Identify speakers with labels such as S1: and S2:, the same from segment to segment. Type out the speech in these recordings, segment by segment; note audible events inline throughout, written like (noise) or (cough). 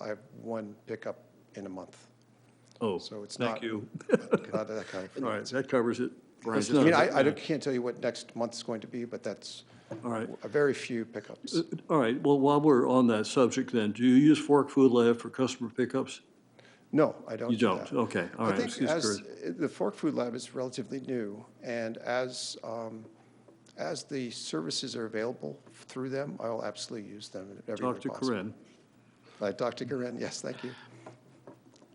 S1: I have one pickup in a month.
S2: Oh,
S1: So it's
S2: thank
S1: not- (laughs)
S2: you.
S1: Not that kind of-
S2: All right, that covers it. That's
S1: I
S2: not-
S1: mean, I, I don't- can't tell you what next month's going to be, but that's
S2: All right, Uh,
S1: a very few pickups.
S2: all right, well, while we're on that subject then, do you use Fork Food Lab for customer pickups?
S1: No, I don't
S2: You
S1: do
S2: don't,
S1: that.
S2: okay, all
S1: I
S2: right. I was
S1: think
S2: just
S1: as,
S2: curious.
S1: the Fork Food Lab is relatively new, and as, um, as the services are available through them, I will absolutely use them everywhere
S2: Talk to
S1: possible.
S2: Corinne.
S1: Uh, Dr. Corinne, yes, thank you.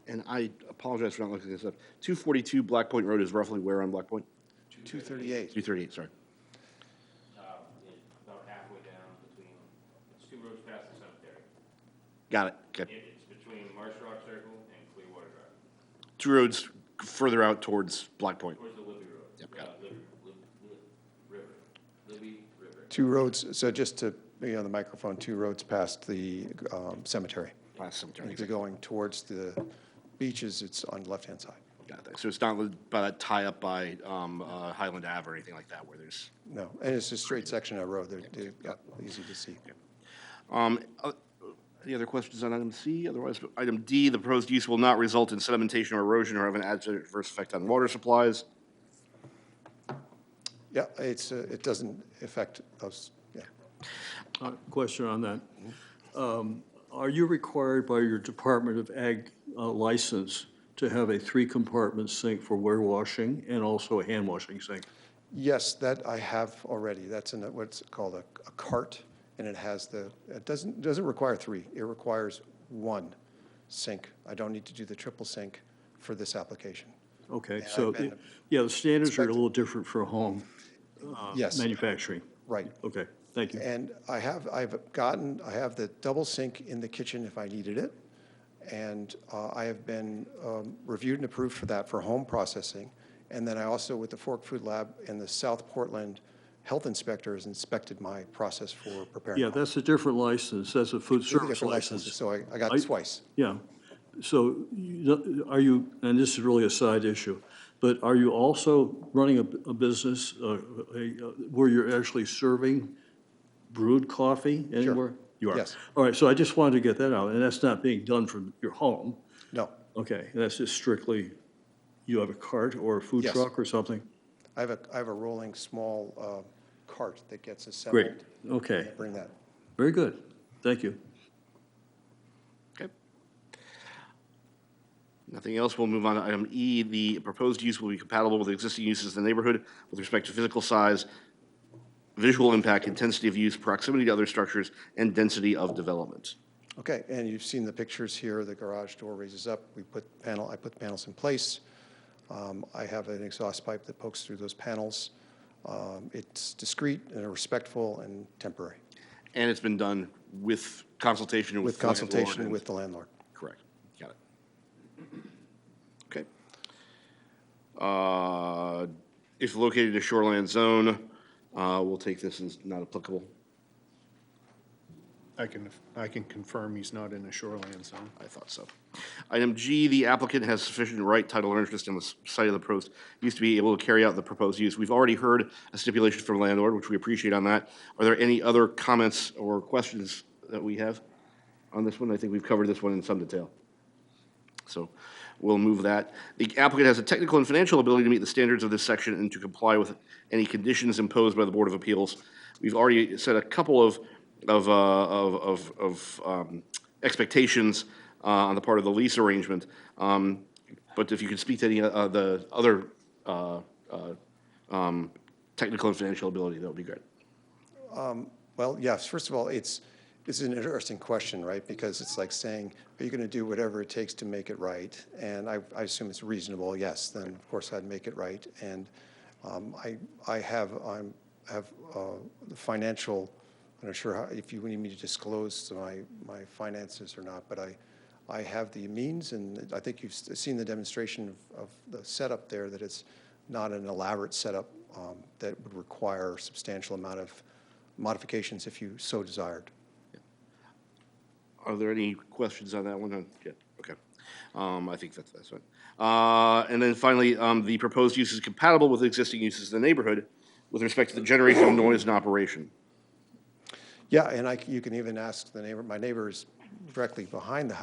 S3: And I apologize for not looking this up. 242 Black Point Road is roughly where on Black Point?
S1: 238.
S3: 238, sorry.
S4: um, it- about halfway down between, it's two roads past the cemetery.
S3: Got it. Okay.
S4: It- It's between Marsh Rock Circle and Clearwater Drive,
S3: Two roads further out towards Black Point.
S4: towards the Libby Road.
S3: Yep, got
S4: uh, Lib- Lib- Lib- River, Libby River.
S1: Two roads, so just to, you know, the microphone, two roads past the um, cemetery.
S3: Last cemetery.
S1: If you're going towards the beaches, it's on the left-hand side.
S3: Got that. So it's not li- by that tie up by um, uh, Highland Ave or anything like that where there's.
S1: No, and it's a straight section of road, they're, they're yeah, easy to see.
S3: Um, uh, Any other questions on item C? Otherwise, item D, the proposed use will not result in sedimentation or erosion or have an adverse effect on water supplies.
S1: Yeah, it's, uh, it doesn't affect those, yeah.
S2: Uh, Question on that. Um, Are you required by your Department of Ag uh, license to have a three-compartment sink for ware washing and also a hand washing sink?
S1: Yes, that I have already. That's in a- what's called a a cart, and it has the, it doesn't, doesn't require three. It requires one sink. I don't need to do the triple sink for this application.
S2: Okay,
S1: Yeah,
S2: so,
S1: I've been-
S2: yeah, the standards are a
S1: Expect-
S2: little different for home uh,
S1: Yes,
S2: manufacturing.
S1: right.
S2: Okay, thank you.
S1: And I have, I've gotten, I have the double sink in the kitchen if I needed it. And uh, I have been um, reviewed and approved for that for home processing. And then I also, with the Fork Food Lab and the South Portland Health Inspector has inspected my process for preparing.
S2: Yeah, that's a different license, that's a food
S1: Two different
S2: service
S1: licenses,
S2: license.
S1: So I, I got
S2: I-
S1: twice.
S2: Yeah, so you- are you, and this is really a side issue, but are you also running a, a business uh, a- uh, where you're actually serving brewed coffee anywhere? You are?
S1: Yes.
S2: All right, so I just wanted to get that out, and that's not being done from your home.
S1: No,
S2: Okay, that's just strictly, you have a cart or a food
S1: Yes.
S2: truck or something?
S1: I have a, I have a rolling small uh, cart that gets assembled.
S2: Great, okay,
S1: I Bring that.
S2: very good, thank you.
S3: Okay. Nothing else, we'll move on to item E. The proposed use will be compatible with existing uses in the neighborhood with respect to physical size, visual impact, intensity of use, proximity to other structures, and density of development.
S1: Okay, and you've seen the pictures here, the garage door raises up, we put panel, I put panels in place. Um, I have an exhaust pipe that pokes through those panels. Um, It's discreet and respectful and temporary,
S3: And it's been done with consultation with
S1: with
S3: the landlord
S1: consultation
S3: and-
S1: with the landlord.
S3: Correct, got it. Okay. Uh, If located in a shoreline zone, uh, we'll take this as not applicable.
S5: I can, I can confirm he's not in a shoreline zone.
S3: I thought so. Item G, the applicant has sufficient right, title, or interest in the s- site of the proposed, used to be able to carry out the proposed use. We've already heard a stipulation from landlord, which we appreciate on that. Are there any other comments or questions that we have on this one? I think we've covered this one in some detail. So we'll move that. The applicant has a technical and financial ability to meet the standards of this section and to comply with any conditions imposed by the Board of Appeals. We've already set a couple of, of, uh, of, of, of um, expectations uh, on the part of the lease arrangement. Um, But if you could speak to any of the other uh, uh, um, technical and financial ability, that would be great.
S1: Well, yes, first of all, it's, it's an interesting question, right? Because it's like saying, are you going to do whatever it takes to make it right? And I, I assume it's reasonable, yes, then of course I'd make it right. And um, I, I have, I'm, have uh, the financial, I'm not sure how, if you need me to disclose my, my finances or not, but I, I have the means, and I think you've s- seen the demonstration of, of the setup there, that it's not an elaborate setup um, that would require substantial amount of modifications if you so desired.
S3: Are there any questions on that one? Uh, yeah, Okay. Um, I think that's, that's right. Uh, and then finally, um, the proposed use is compatible with existing uses in the neighborhood with respect to the generation of noise and operation.
S1: Yeah, and I, c- you can even ask the neighbor, my neighbor is directly behind the house.